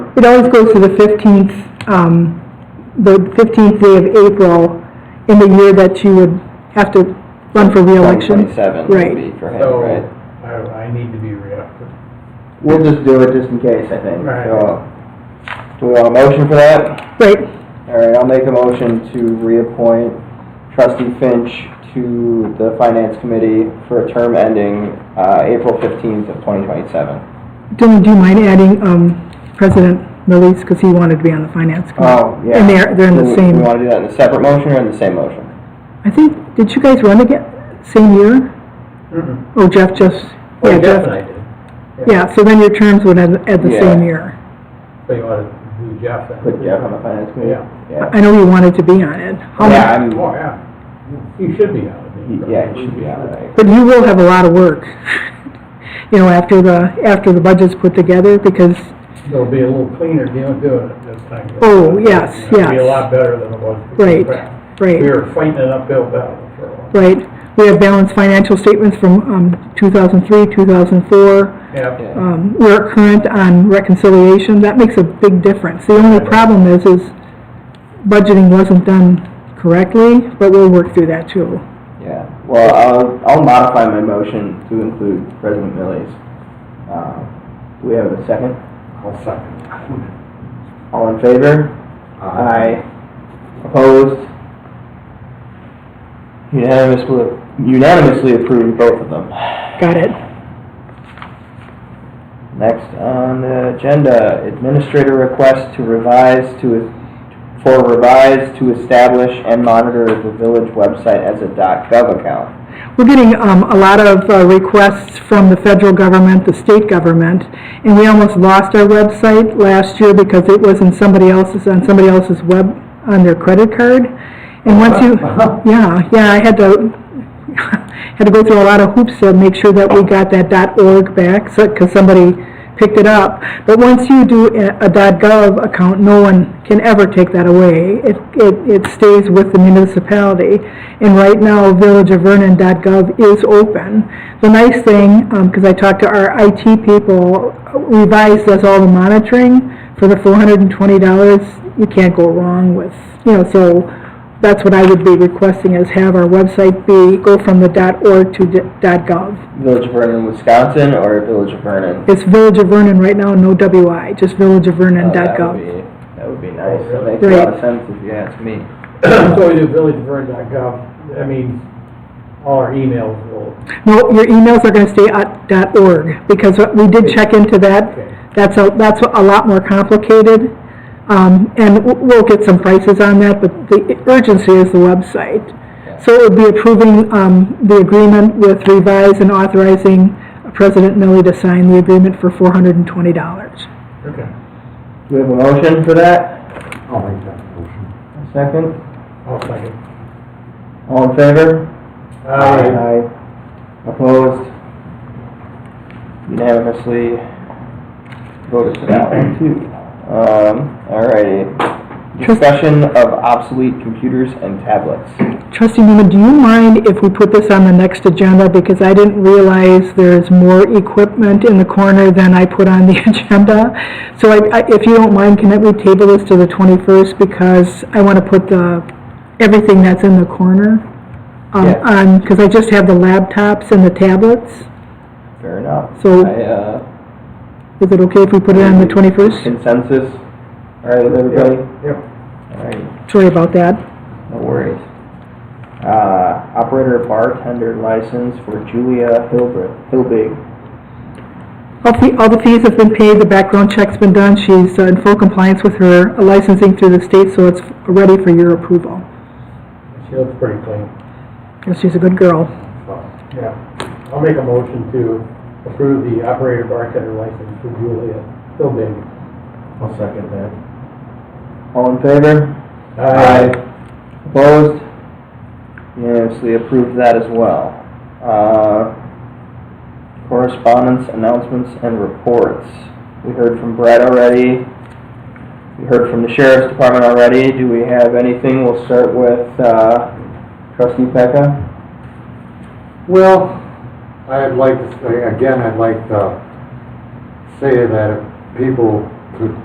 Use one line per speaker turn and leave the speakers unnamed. It always goes to the 15th, um, the 15th day of April in the year that you would have to run for reelection.
Twenty-seven
Right.
would be for him,
So,
right?
I, I need to be re-elected.
We'll just do it just in case, I think.
Right.
So, uh, Do we want a motion for that?
Right,
All right, I'll make a motion to reappoint trustee Finch to the finance committee for a term ending uh, April fifteenth of twenty twenty-seven.
Dylan, do you mind adding um, President Millies, because he wanted to be on the finance committee?
Oh, yeah.
And they're- they're in the
Do we-
same-
Do we want to do that in a separate motion or in the same motion?
I think, did you guys run again, same year?
Mm-hmm.
Oh, Jeff just, yeah,
Jeff and
Jeff.
I did,
Yeah, so then your terms would end at the
Yeah.
same year.
but you want to do Jeff then?
Put Jeff on the finance committee?
Yeah.
Yeah. Um,
I know you wanted to be on it. How
Yeah,
much-
I'm,
Oh, yeah, you should be on it. Dave.
yeah, it should be out, right?
But you will have a lot of work, you know, after the, after the budget's put together, because,
It'll be a little cleaner deal doing it this time.
Oh, yes,
It'll be a
yes.
lot better than it was. before.
right,
We
right,
were fighting an uphill battle for a while.
right. We have balanced financial statements from um, 2003, 2004.
Yeah,
Yeah.
Um, We're current on reconciliation. That makes a big difference. The only problem is, is budgeting wasn't done correctly, but we'll work through that too.
Yeah, well, I'll, I'll modify my motion to include President Millies. Uh, Do we have a second?
I'll second.
All in favor? Aye. Opposed? Unanimously, unanimously approved, both of them.
Got it?
Next on the agenda, administrator request to revise to, for revise to establish and monitor the village website as a .gov account.
We're getting um, a lot of uh, requests from the federal government, the state government, and we almost lost our website last year because it was in somebody else's, on somebody else's web, on their credit card. And once you, yeah, yeah, I had to, had to go through a lot of hoops to make sure that we got that .org back, because somebody picked it up. But once you do a a .gov account, no one can ever take that away. It, it, it stays with the municipality. And right now, villageofvernon.gov is open. The nice thing, because I talked to our IT people, Revise does all the monitoring for the four hundred and twenty dollars. You can't go wrong with, you know, so that's what I would be requesting, is have our website be, go from the .org to .gov.
Village of Vernon, Wisconsin, or Village of Vernon?
It's Village of Vernon right now, no WI, just
Oh, that would
villageofvernon.gov.
be- That would be nice.
Oh, really?
Makes a lot
Right.
of sense if you ask me.
So we do villagevern.gov, that means all our emails will,
No, your emails are gonna stay at .org, because we did check into
Okay.
that. That's a, that's a lot more complicated, um, and w- we'll get some prices on that, but the urgency is the website. So it would be approving, um, the agreement with Revise and authorizing President Millie to sign the agreement for four hundred and twenty dollars.
okay.
Do we have a motion for that?
I'll make that motion.
A Second?
I'll second.
All in favor?
Aye.
Aye. Opposed? Unanimously voted for that one too. Um, alrighty. Discussion of obsolete computers and tablets.
Trustee Newman, do you mind if we put this on the next agenda? Because I didn't realize there's more equipment in the corner than I put on the agenda. So I, I- if you don't mind, can we table this to the 21st? Because I want to put the, everything that's in the corner um,
Yeah.
on, because I just have the laptops and the tablets.
Fair enough.
So-
I, uh,
Is it okay if we put it on the 21st?
Consensus? Alright, with everybody?
Yep.
Alright.
Sorry about that.
No worries. Uh, operator bartender license for Julia Hilbr- Hilbig.
All the, all the fees have been paid, the background check's been done, she's uh, in full compliance with her licensing through the state, so it's ready for your approval.
She looks pretty clean.
And She's a good girl.
Yeah, I'll make a motion to approve the operator bartender license for Julia Philbin. I'll second that.
All in favor? Opposed? Unanimously approved that as well. Uh, correspondence, announcements, and reports. We heard from Brett already. We heard from the sheriff's department already. Do we have anything? We'll start with, uh, trustee Pecca.
Well, I'd like, to say- again, I'd like to say that if people could